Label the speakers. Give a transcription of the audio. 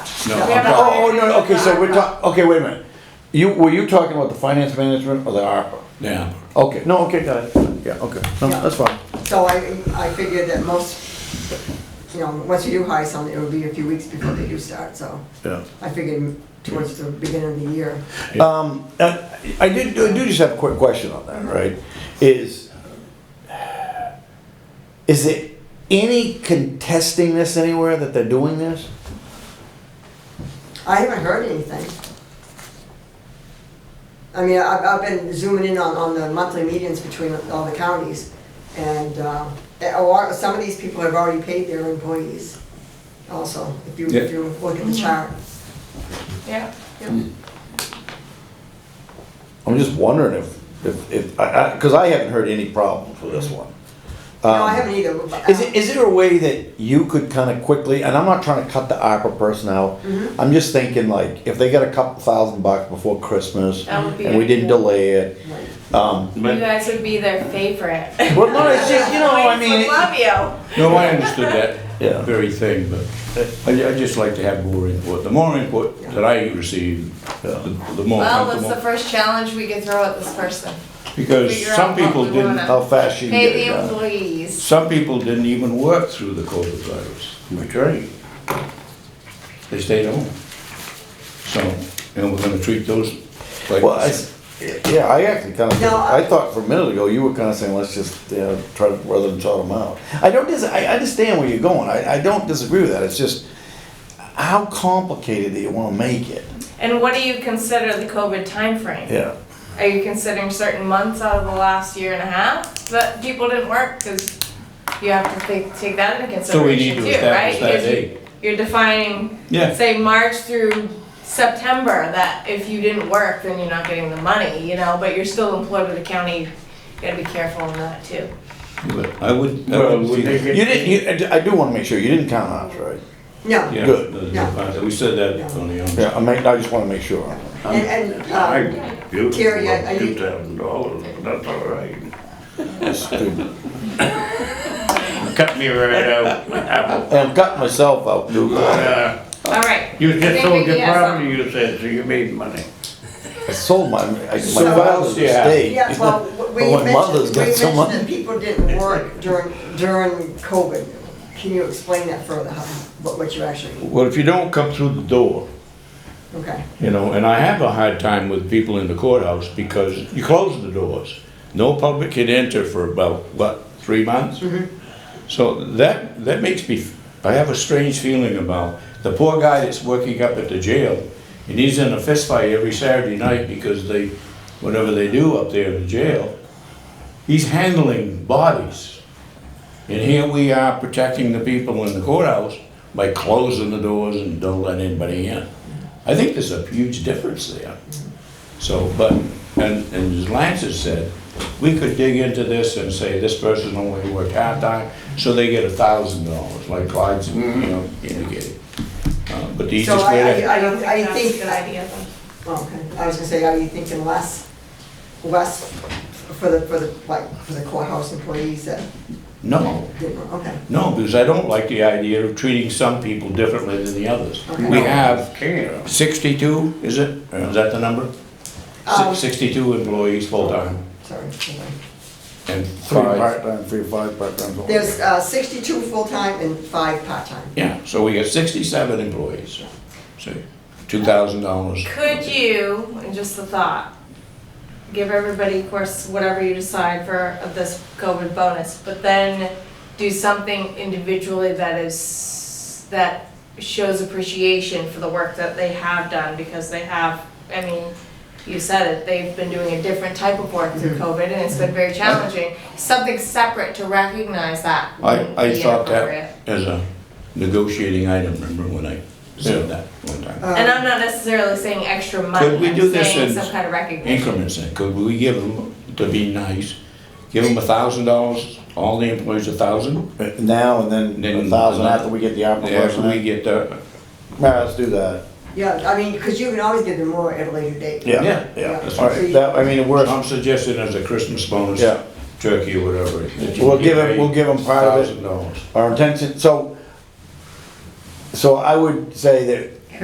Speaker 1: No,
Speaker 2: We
Speaker 1: I'm
Speaker 2: haven't-
Speaker 1: talking,
Speaker 3: Oh, oh, no, no, okay, so we're talking, okay, wait a minute. You, were you talking about the finance management or the ARPA?
Speaker 1: yeah,
Speaker 3: Okay, no, okay, got it. Yeah, okay, no, that's fine.
Speaker 2: So I, I figured that most, you know, once you do hire someone, it would be a few weeks before they do start, so
Speaker 3: Yeah.
Speaker 2: I figured towards the beginning of the year.
Speaker 3: Um, uh, I did, I do just have a quick question on that, right? Is, is it any contesting this anywhere that they're doing this?
Speaker 2: I haven't heard anything. I mean, I've, I've been zooming in on, on the monthly meetings between all the counties, and, uh, a lot, some of these people have already paid their employees also, if you, if you look at the chart.
Speaker 4: Yeah.
Speaker 3: I'm just wondering if, if, if, I, I, cause I haven't heard any problems with this one.
Speaker 2: No, I
Speaker 3: Um,
Speaker 2: haven't either. but, uh,
Speaker 3: Is it, is there a way that you could kind of quickly, and I'm not trying to cut the ARPA person out,
Speaker 4: Mm-hmm.
Speaker 3: I'm just thinking like, if they got a couple thousand bucks before Christmas,
Speaker 4: That would be
Speaker 3: and we didn't
Speaker 4: ideal.
Speaker 3: delay it,
Speaker 2: Right.
Speaker 3: um,
Speaker 4: You
Speaker 1: but,
Speaker 4: guys would be their favorite.
Speaker 3: well, no, it's just, you know, I
Speaker 4: We
Speaker 3: mean, it-
Speaker 4: Love you.
Speaker 1: no, I understood that
Speaker 3: Yeah.
Speaker 1: very thing, but I, I just like to have more input. The more input that I receive, the the more
Speaker 4: Well, what's the
Speaker 1: comfortable.
Speaker 4: first challenge we could throw at this person?
Speaker 1: Because
Speaker 4: figure
Speaker 1: some
Speaker 4: out what
Speaker 1: people
Speaker 4: we
Speaker 1: didn't,
Speaker 4: wanna-
Speaker 3: how fast you can get
Speaker 4: Pay
Speaker 3: it
Speaker 4: the
Speaker 3: done.
Speaker 4: employees.
Speaker 1: some people didn't even work through the COVID virus. That's right. They stayed home. So, and we're gonna treat those like.
Speaker 3: Well, I s yeah, I actually kind of,
Speaker 2: No, I-
Speaker 3: I thought for a minute ago, you were kind of saying, let's just, you know, try to, rather than sort them out. I don't dis, I understand where you're going, I, I don't disagree with that, it's just, how complicated do you want to make it?
Speaker 4: And what do you consider the COVID timeframe?
Speaker 3: Yeah.
Speaker 4: Are you considering certain months out of the last year and a half that people didn't work? Because you have to take, take that into
Speaker 1: So we need
Speaker 4: consideration
Speaker 1: to
Speaker 4: too, right?
Speaker 1: establish that
Speaker 4: Because you-
Speaker 1: date.
Speaker 4: You're defining,
Speaker 1: Yeah.
Speaker 4: say, March through September, that if you didn't work, then you're not getting the money, you know, but you're still employed with the county. You gotta be careful in that too.
Speaker 1: But I would. I
Speaker 5: Well,
Speaker 1: would
Speaker 5: would
Speaker 1: see-
Speaker 5: they get-
Speaker 3: You didn't, you, I do- I do want to make sure, you didn't count ours, right?
Speaker 2: No,
Speaker 1: Yeah,
Speaker 3: Good.
Speaker 1: the- the-
Speaker 2: Yeah.
Speaker 1: we said that on the, um,
Speaker 3: Yeah, I make, I just wanna make sure.
Speaker 2: and, and,
Speaker 5: I
Speaker 2: um,
Speaker 5: do
Speaker 2: Terry, I- I-
Speaker 5: two thousand dollars, that's all right.
Speaker 3: It's stupid.
Speaker 5: Cut me right out.
Speaker 3: I'm cutting myself out, dude. I
Speaker 5: Uh,
Speaker 1: Oh.
Speaker 4: All right.
Speaker 5: You
Speaker 4: I think
Speaker 5: just sold
Speaker 4: we
Speaker 5: your
Speaker 4: can ask them.
Speaker 5: property, you said, so you made money.
Speaker 3: sold my, I- my
Speaker 1: So what
Speaker 3: father's
Speaker 1: else you have?
Speaker 3: estate.
Speaker 2: yeah, well, we
Speaker 3: But my
Speaker 2: mentioned,
Speaker 3: mother's
Speaker 2: we
Speaker 3: got so
Speaker 2: mentioned
Speaker 3: much.
Speaker 2: that people didn't work during, during COVID. Can you explain that further, how, what, what you actually,
Speaker 1: well, if you don't come through the door,
Speaker 2: okay,
Speaker 1: you know, and I have a hard time with people in the courthouse because you close the doors. No public can enter for about, what, three months? So that, that makes me, I have a strange feeling about the poor guy that's working up at the jail. And he's in a fistfight every Saturday night because they, whatever they do up there in the jail, he's handling bodies. And here we are protecting the people in the courthouse by closing the doors and don't let anybody in. I think there's a huge difference there. So, but, and, and as Lance has said, we could dig into this and say, this person only worked half-time, so they get a thousand dollars, like Clyde's, you know, indicated. Uh, But the
Speaker 2: Mm-hmm. So
Speaker 1: easiest
Speaker 2: I-
Speaker 1: way to.
Speaker 2: I don't- I
Speaker 4: that's
Speaker 2: think-
Speaker 4: a Good idea though.
Speaker 2: oh, okay. I was gonna say, are you thinking less, less for the, for the, like, for the courthouse employees that
Speaker 1: No,
Speaker 2: didn't work, okay.
Speaker 1: no, because I don't like the idea of treating some people differently than the others.
Speaker 2: Okay.
Speaker 1: We have
Speaker 5: Care.
Speaker 1: 62, is it? Or Is that the number?
Speaker 2: Um,
Speaker 1: Six- 62 employees full-time
Speaker 2: Sorry, hold on.
Speaker 1: and
Speaker 3: Three
Speaker 1: five.
Speaker 3: part-time, three five part-time.
Speaker 2: There's, uh, sixty-two full-time and five part-time.
Speaker 1: Yeah, so we got 67 employees. So $2,000.
Speaker 4: Could you, and just the thought, give everybody, of course, whatever you decide for of this COVID bonus, but then do something individually that is, that shows appreciation for the work that they have done, because they have, I mean, you said it, they've been doing a different type of work through
Speaker 1: Mm-hmm.
Speaker 4: COVID, and it's been very challenging. Something separate to recognize that.
Speaker 1: I,
Speaker 4: would
Speaker 1: I
Speaker 4: be
Speaker 1: thought
Speaker 4: appropriate.
Speaker 1: that as a negotiating item, remember when I said that one time?
Speaker 2: Um,
Speaker 4: And I'm not necessarily saying extra money,
Speaker 1: Could we
Speaker 4: I'm
Speaker 1: do this
Speaker 4: saying
Speaker 1: in
Speaker 4: some kind of recognition.
Speaker 1: increments in, could we give them, to be nice, give them a thousand dollars, all the employees a thousand?
Speaker 3: Now and then,
Speaker 1: Then
Speaker 3: a thousand
Speaker 1: another-
Speaker 3: after we get the ARPA
Speaker 1: After
Speaker 3: person.
Speaker 1: we
Speaker 3: in.
Speaker 1: get the,
Speaker 3: Nah, let's do that.
Speaker 2: Yeah, I mean, cause you can always give them more at a later date.
Speaker 1: Yeah.
Speaker 3: Yeah,
Speaker 2: Yeah.
Speaker 3: yeah. All right, that, I mean, it works.
Speaker 1: I'm suggesting as a Christmas bonus,
Speaker 3: Yeah.
Speaker 1: turkey or whatever. that you
Speaker 3: We'll
Speaker 1: get
Speaker 3: give 'em-
Speaker 1: paid
Speaker 3: we'll give 'em part of it.
Speaker 1: $1,000.
Speaker 3: Our intention, so, so I would say that